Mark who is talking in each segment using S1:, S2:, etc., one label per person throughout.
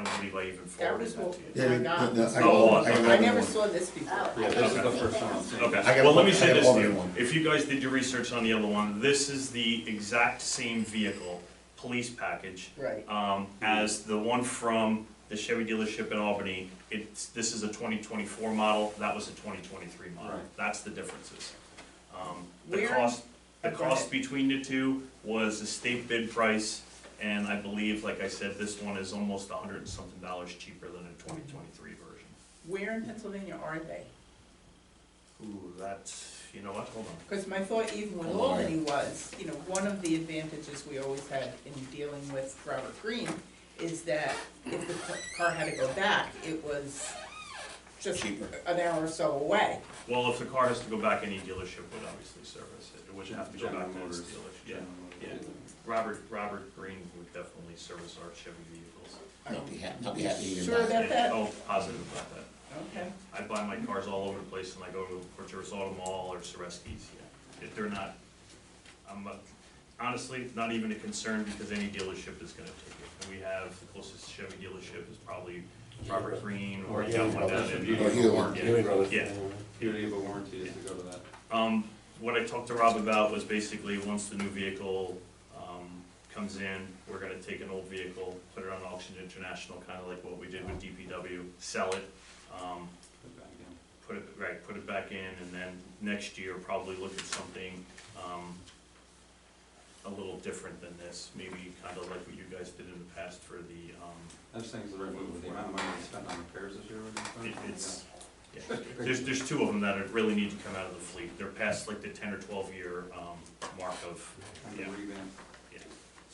S1: anybody even
S2: That
S1: forwarded
S2: was
S1: that
S2: what,
S1: to you?
S3: Yeah,
S2: my
S3: no,
S2: God.
S3: no, I got
S1: Oh,
S3: one. I got
S2: I
S3: another
S2: never
S3: one.
S2: saw this before.
S4: Oh, I
S5: Yeah,
S4: didn't
S5: this is
S4: think
S5: the
S4: that
S5: first
S4: was-
S5: one I'm seeing.
S3: I
S1: Okay,
S3: got
S1: well, let
S3: one-
S1: me
S3: I
S1: say
S3: got
S1: this
S3: all
S1: to
S3: of
S1: you,
S3: one.
S1: if you guys did your research on the other one, this is the exact same vehicle, police package,
S2: Right.
S1: um, as the one from the Chevy dealership in Albany. It's, this is a twenty twenty-four model, that was a twenty twenty-three model,
S5: Right.
S1: that's the differences. Um, The
S2: Where-
S1: cost, the
S2: Oh, go
S1: cost
S2: ahead.
S1: between the two was a state bid price, and I believe, like I said, this one is almost a hundred and something dollars cheaper than a twenty twenty-three version.
S2: Where in Pennsylvania are they?
S1: Ooh, that's, you know what, hold on.
S2: Because my thought even with
S3: Alright.
S2: Albany was, you know, one of the advantages we always had in dealing with Robert Green is that if the ca- car had to go back, it was just
S3: Cheaper.
S2: an hour or so away.
S1: Well, if the car has to go back, any dealership would obviously service it, it would have to go
S5: General
S1: back to its
S5: Motors.
S1: dealership, yeah.
S5: General Motors.
S1: Yeah. Robert, Robert Green would definitely service our Chevy vehicles.
S3: Not be happy, not be happy either.
S2: Sure
S3: about it.
S2: about that?
S1: Oh, positive about that.
S2: Okay.
S1: I buy my cars all over the place and I go to Porturis Auto Mall or Soreski's, yeah. If they're not, I'm, uh, honestly, not even a concern because any dealership is gonna take it. And we have, the closest Chevy dealership is probably Robert Green or
S5: Or
S1: something like
S5: Brothers.
S1: that. and-
S5: Beauty of
S3: Or
S5: a
S3: Hewlett.
S5: warranty.
S1: Yeah.
S5: Beauty of a warranty is to go to that.
S1: Um, what I talked to Rob about was basically, once the new vehicle, um, comes in, we're gonna take an old vehicle, put it on Auction International, kinda like what we did with DPW, sell it, um,
S5: Put back in.
S1: put it, right, put it back in, and then next year probably look at something, um, a little different than this, maybe kinda like what you guys did in the past for the, um,
S5: That thing's the right move with the amount of money we spent on repairs this year. we're gonna spend.
S1: it- it's, yeah. There's, there's two of them that are- really need to come out of the fleet, they're past like the ten or twelve year, um, mark of,
S5: And
S1: yeah.
S5: the revamp.
S1: yeah,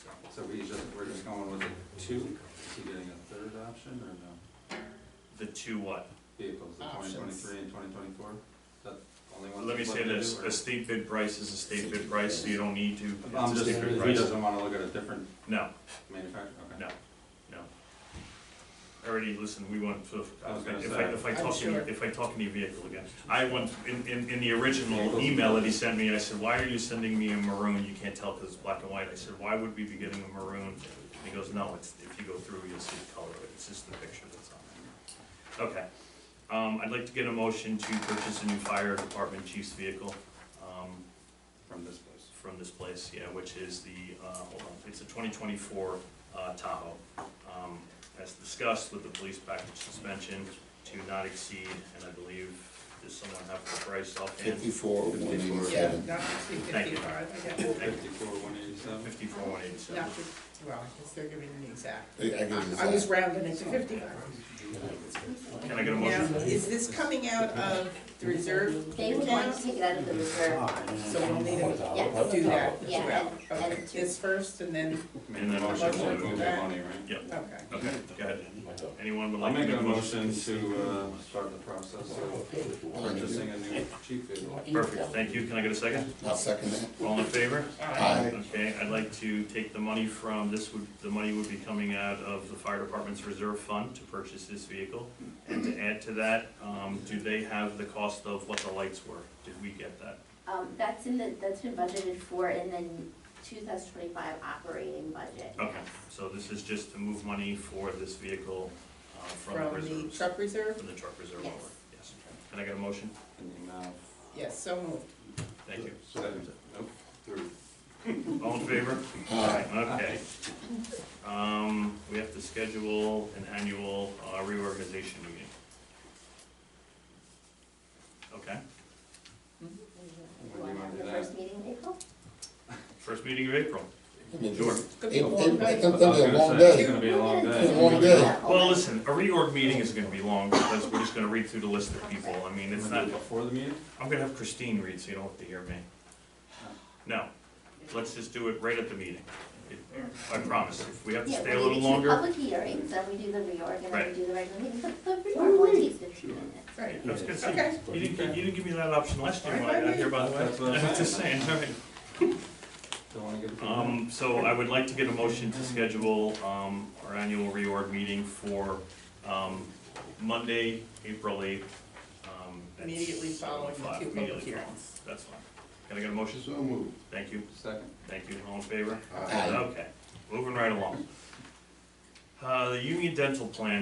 S1: so.
S5: So we just, we're just going with a two, is he getting a third option or no?
S1: The two what?
S5: Vehicles, the twenty
S2: Options.
S5: twenty-three and twenty twenty-four, is that the only one?
S1: Let me
S5: that's
S1: say
S5: left to do,
S1: this,
S5: or-
S1: a state bid price is a state bid price, so you don't need to.
S5: I'm
S1: It's a
S5: just,
S1: state bid
S5: he
S1: price.
S5: doesn't wanna look at a different
S1: No,
S5: manufacturer, okay.
S1: No. no. Already, listen, we went to,
S5: I was gonna
S1: if I,
S5: say.
S1: if I
S2: I'm
S1: talk in,
S2: sure.
S1: if I talk in your vehicle again. I went, in, in, in the original email that he sent me, I said, why are you sending me a maroon? You can't tell because it's black and white. I said, why would we be getting a maroon? And he goes, no, it's, if you go through, you'll see the color of it. It's just the picture that's on there. Okay. Um, I'd like to get a motion to purchase a new fire department chief's vehicle. Um,
S5: From this place.
S1: from this place, yeah, which is the, uh, hold on, it's a twenty twenty-four, uh, Tahoe. Um, as discussed with the police package suspension to not exceed, and I believe, does someone have the price offhand?
S3: Fifty-four, one
S2: Yeah,
S3: eighty-seven.
S2: not to see
S1: Thank you.
S2: fifty-five, I guess.
S5: Fifty-four, one eighty-seven,
S1: Fifty-four, oh one eighty-seven.
S2: Not to- well, I guess they're giving an exact.
S3: I I give it
S2: I was
S3: that.
S2: rounding it to fifty-five.
S1: Can I get a
S2: Now,
S1: motion?
S2: is this coming out of the reserve
S4: They would want to
S2: account?
S4: take it out of the reserve.
S2: So we'll need to
S4: Yes.
S2: do that as
S4: Yeah,
S2: well.
S4: and-
S2: Okay,
S4: and to-
S2: this first and then,
S5: made the motion to
S2: Motion.
S5: move the money, right?
S1: Yep,
S2: okay.
S1: okay, go ahead. Anyone would
S5: I'll
S1: like to
S5: make
S1: make
S5: a motion to, uh, start the process of purchasing a new chief vehicle.
S1: Perfect, thank you. Can I get a second?
S3: I'll second that.
S1: All in favor?
S3: Aye.
S1: Okay, I'd like to take the money from, this would, the money would be coming out of the fire department's reserve fund to purchase this vehicle. And to add to that, um, do they have the cost of what the lights were? Did we get that?
S4: Um, that's in the, that's been budgeted for in the two thousand twenty-five operating budget.
S1: Okay,
S4: yes.
S1: so this is just to move money for this vehicle, uh, from the
S2: From the
S1: reserves,
S2: truck reserve?
S1: from the truck reserve over,
S4: Yes.
S1: yes. Can I get a motion?
S5: In the amount of,
S2: Yes, so moved.
S1: Thank you.
S5: seven- nope, through.
S1: All in favor?
S3: Aye.
S1: Okay. Um, we have to schedule an annual uh, reorganization meeting. Okay,
S4: You wanna have the first meeting in April?
S1: first meeting of April.
S3: I mean,
S1: Sure.
S2: Could be a
S3: April,
S2: long
S3: April,
S2: night.
S3: it's gonna be a long
S5: It's
S3: day.
S5: gonna be a long
S4: We'll get
S3: It's
S5: day.
S3: a long day.
S1: Well, listen, a reorg meeting is gonna be long because we're just gonna read through the list of people. I mean,
S5: You
S1: it's
S5: wanna
S1: not,
S5: do it Before the meeting?
S1: I'm gonna have Christine read so you don't have to hear me. No, let's just do it right at the meeting. It- I promise. If we have to
S4: Yeah,
S1: stay a
S4: we
S1: little
S4: do two
S1: longer,
S4: Public hearings, then we do the reorg, and then
S1: Right.
S4: we do the regular meeting, but the reorg only takes fifteen minutes.
S2: Right.
S1: I was gonna say,
S2: Okay.
S1: you didn't, give- you didn't give me that option last year when I got here, by the
S5: That's what
S1: way.
S5: I'm
S1: I'm just
S5: saying.
S1: saying, all right.
S5: Don't wanna give it to them?
S1: Um, so I would like to get a motion to schedule, um, our annual reorg meeting for, um, Monday, April eighth. um, at
S2: Immediately following the
S1: 7:05,
S2: two public
S1: immediately
S2: hearings.
S1: following. That's fine. Can I get a motion?
S6: So moved.
S1: Thank you,
S5: Second,
S1: thank you, all in favor?
S3: Aye.
S1: Okay, moving right along. Uh, the Union Dental Plan